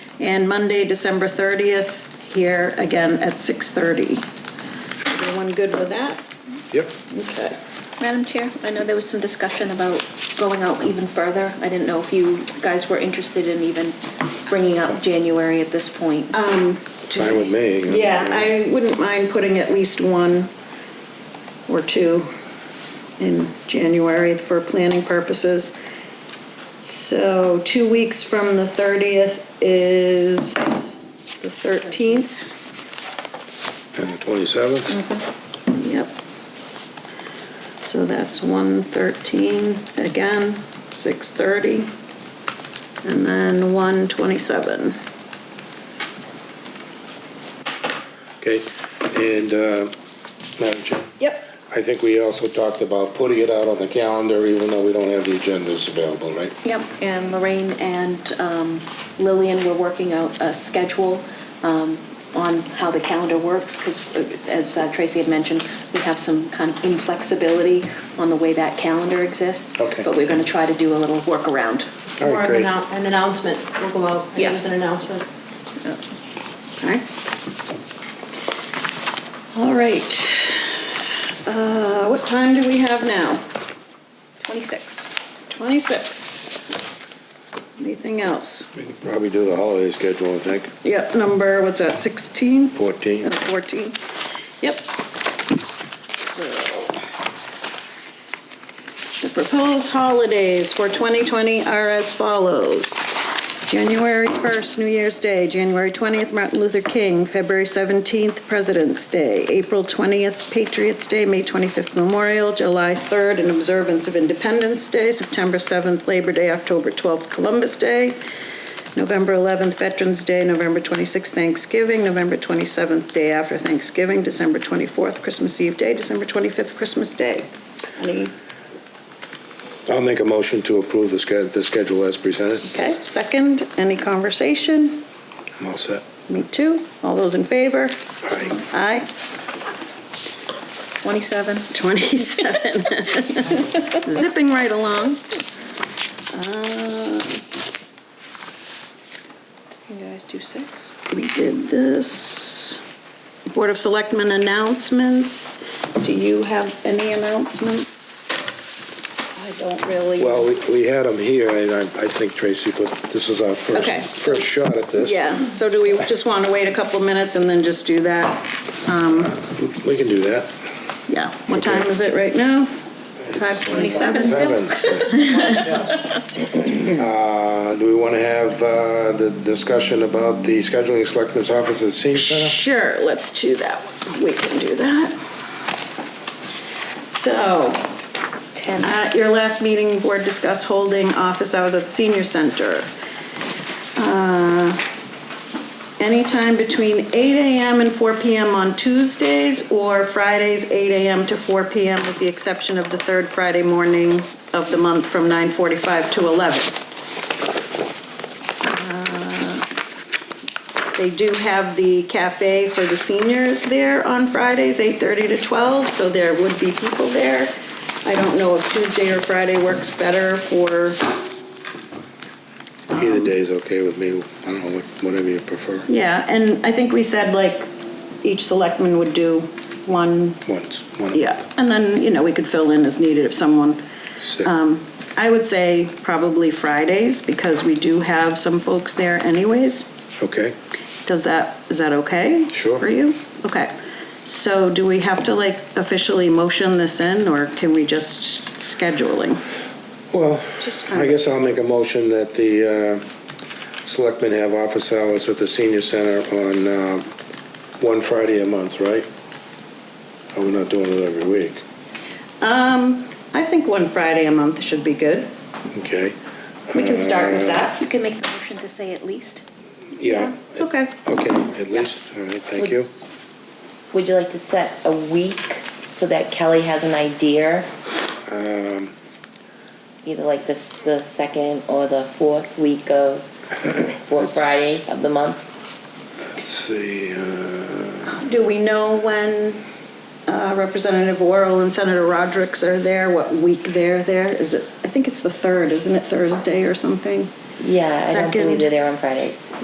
and Monday, December 30th, here again at 6:30. Everyone good with that? Yep. Okay. Madam Chair, I know there was some discussion about going out even further. I didn't know if you guys were interested in even bringing out January at this point. Fine with me. Yeah, I wouldn't mind putting at least one or two in January for planning purposes. So two weeks from the 30th is the 13th. And the Mm-hmm. twenty-seventh, Yep. So that's 113, again, 6:30. And then 127. okay? And, uh, Madam Chair? Yep. I think we also talked about putting it out on the calendar, even though we don't have the agendas available, right? Yep, and Lorraine and um, Lillian were working out a schedule um, on how the calendar works, because as uh, Tracy had mentioned, we have some kind of inflexibility on the way that calendar exists. Okay. But we're going to try to do a little workaround. All Or right, an great. annou- an announcement, we'll go out Yeah. and use an announcement. Alright. All right. Uh, What time do we have now? 26. 26. Anything else? We could Probably do the holiday schedule, I think, Yep, number, what's that, 16? fourteen. And 14. Yep. So, The proposed holidays for 2020 are as follows. January 1st, New Year's Day, January 20th, Martin Luther King, February 17th, President's Day, April 20th, Patriots Day, May 25th, Memorial, July 3rd, an observance of Independence Day, September 7th, Labor Day, October 12th, Columbus Day, November 11th, Veterans Day, November 26th, Thanksgiving, November 27th, day after Thanksgiving, December 24th, Christmas Eve Day, December 25th, Christmas Day. Any, I'll make a motion to approve the sched, the schedule as presented. okay, second, any conversation? I'm all set. Me too. All those in favor? All right, Aye. 27. 27. Zipping right along. Uh, You guys do six? We did this. Board of Selectmen announcements. Do you have any announcements? I don't really. well, we, we had them here, and I, I think Tracy, but this is our first, Okay, so- first shot at this. Yeah, so do we just want to wait a couple of minutes and then just do that? We can do that. Yeah. What time is it right now? It's like 5:27 seven. still? Uh, do we want to have, uh, the discussion about the scheduling selectmen's office at senior center? Sure, let's do that. one. We can do that. So, 10. At your last meeting, board discussed holding office hours at the senior center. Uh, Anytime between 8 AM and 4 PM on Tuesdays or Fridays, 8 AM to 4 PM with the exception of the third Friday morning of the month from 9:45 to 11. They do have the cafe for the seniors there on Fridays, 8:30 to 12, so there would be people there. I don't know if Tuesday or Friday works better for, Either day is okay with me. I don't know, what- whatever you prefer. yeah, and I think we said like each selectman would do one, Once, one. yeah, and then, you know, we could fill in as needed if someone, Sick. I would say probably Fridays because we do have some folks there anyways. Okay, Does that, is that okay? Sure. For you? Okay. So do we have to like officially motion this in or can we just scheduling? well, Just kind I of- guess I'll make a motion that the uh, selectmen have office hours at the senior center on uh, one Friday a month, right? Oh, we're not doing it every week, I think one Friday a month should be good. okay? We can start with that. You can make the motion to say at least. Yeah, Okay. okay, at least, all right, thank you. Would you like to set a week so that Kelly has an idea? Um, Either like this, the second or the fourth week of, fourth Friday of the month? Let's see, uh, Do we know when uh, Representative Worrell and Senator Rodericks are there, what week they're there? Is it, I think it's the third, isn't it, Thursday or something? Yeah, I don't Second. believe they're there on Fridays.